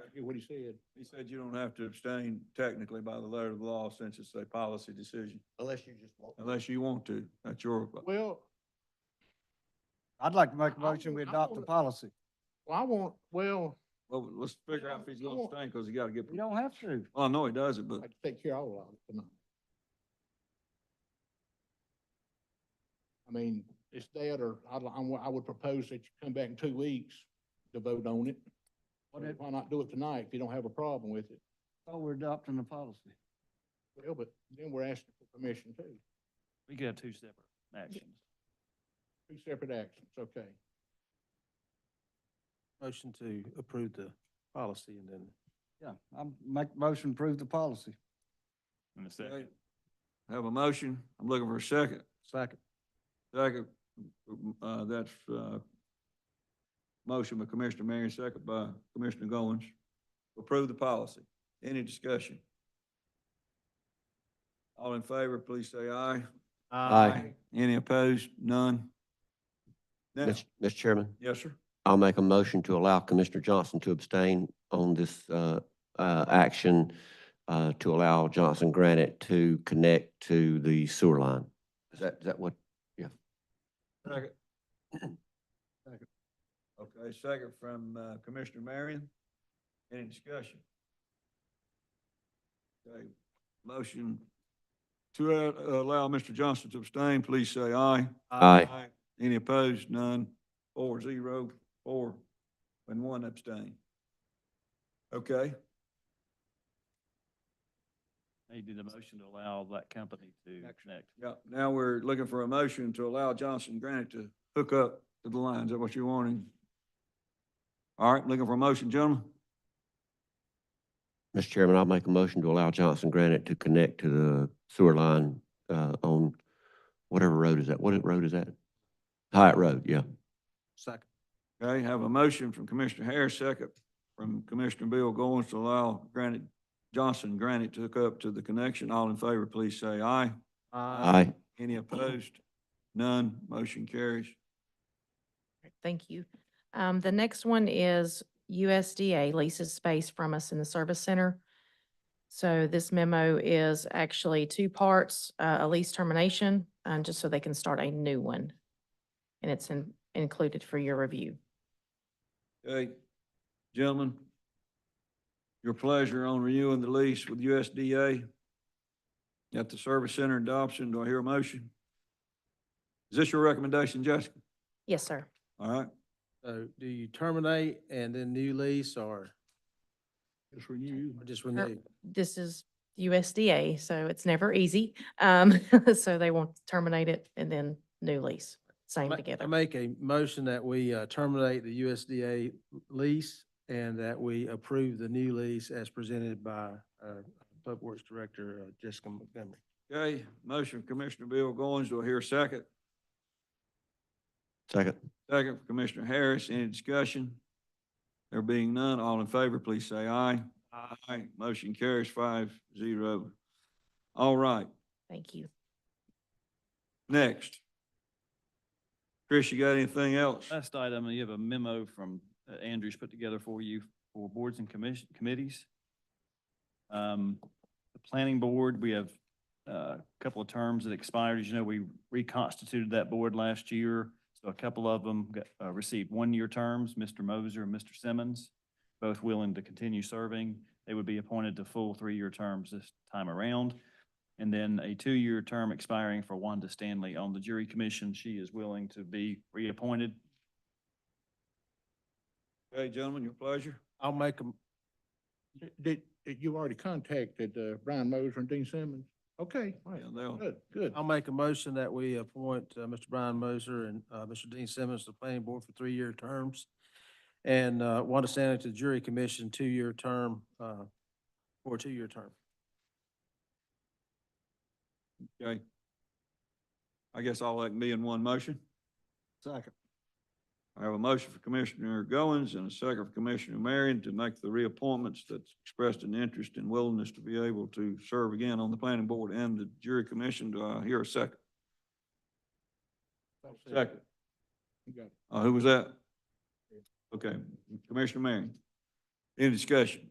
exactly what he said. He said you don't have to abstain technically by the letter of the law since it's a policy decision, unless you just want. unless you want to. That's your, Well, I'd like to make a I motion, we wanna- I adopt the wanna- policy. well, I want, well, well, let's figure out if he's gonna abstain, because he gotta get, You don't have to. well, I know he doesn't, but I can take care of all of it tonight. I mean, it's dead, or I'd, li- I, wa- I would propose that you come back in two weeks to vote on it. What if, Why not do it tonight if you don't have a problem with it? oh, we're adopting the policy? Well, but then we're asking for permission too. We could have two separate actions. Two separate actions, okay. Motion to approve the policy and then Yeah, I'm, make a motion, approve the policy. In a second. have a motion. I'm looking for a second. Second. Second, uh, that's, uh, motion by Commissioner Marion, second by Commissioner Goins. Approve the policy. Any discussion? All in favor, please say aye. Aye. Any opposed? None? Now, Mr. Mr. Chairman, yes, sir. I'll make a motion to allow Commissioner Johnson to abstain on this, uh, uh, action, uh, to allow Johnson Granite to connect to the sewer line. Is that, is that what? Second. Okay, second from, uh, Commissioner Marion. Any discussion? Okay, motion to uh, allow Mr. Johnson to abstain, please say aye. Aye. Any opposed? None. Four, zero, four, and one abstain. Okay, They did a motion to allow that company to connect. yeah, now we're looking for a motion to allow Johnson Granite to hook up to the lines. Is that what you're wanting? All right, looking for a motion, gentlemen? Mr. Chairman, I'll make a motion to allow Johnson Granite to connect to the sewer line, uh, on whatever road is that? What road is that? Hyatt Road, yeah. second. Okay, have a motion from Commissioner Harris, second from Commissioner Bill Goins to allow Granite, Johnson Granite to hook up to the connection. All in favor, please say aye. Aye. Any opposed? None. Motion carries. Thank you. Um, the next one is USDA leases space from us in the service center. So this memo is actually two parts, uh, a lease termination, um, just so they can start a new one. And it's in- included for your review. Okay, gentlemen, your pleasure on renewing the lease with USDA at the Service Center in Dobson. Do I hear a motion? Is this your recommendation, Jessica? Yes, sir. All right. So do you terminate and then new lease or It's for you. or just renew? This is USDA, so it's never easy. Um, so they won't terminate it and then new lease, same Ma- together. I make a motion that we uh, terminate the USDA lease and that we approve the new lease as presented by uh, Public Works Director uh, Jessica Montgomery. Okay, motion from Commissioner Bill Goins. Do I hear a second? Second. Second from Commissioner Harris. Any discussion? There being none, all in favor, please say aye. Aye. Motion carries five zero. All right, Thank you. next. Chris, you got anything else? Last item, you have a memo from uh, Andrews put together for you for boards and commission, committees. Um, the planning board, we have uh, a couple of terms that expired. As you know, we reconstituted that board last year. So a couple of them got, uh, received one-year terms, Mr. Moser and Mr. Simmons, both willing to continue serving. They would be appointed to full three-year terms this time around. And then a two-year term expiring for Wanda Stanley on the jury commission. She is willing to be reappointed. Okay, gentlemen, your pleasure. I'll make a, Did, did you already contacted, uh, Brian Moser and Dean Simmons? Okay, all right, Yeah, they'll, good, good. I'll make a motion that we appoint uh, Mr. Brian Moser and uh, Mr. Dean Simmons to the planning board for three-year terms. And uh, Wanda Stanley to the jury commission, two-year term, uh, for a two-year term. okay. I guess all that can be in one motion. Second. I have a motion for Commissioner Goins and a second for Commissioner Marion to make the reappointments that's expressed an interest and willingness to be able to serve again on the planning board and the jury commission. Do I hear a second? Second. You got it. Uh, who was that? Okay, Commissioner Marion. Any discussion?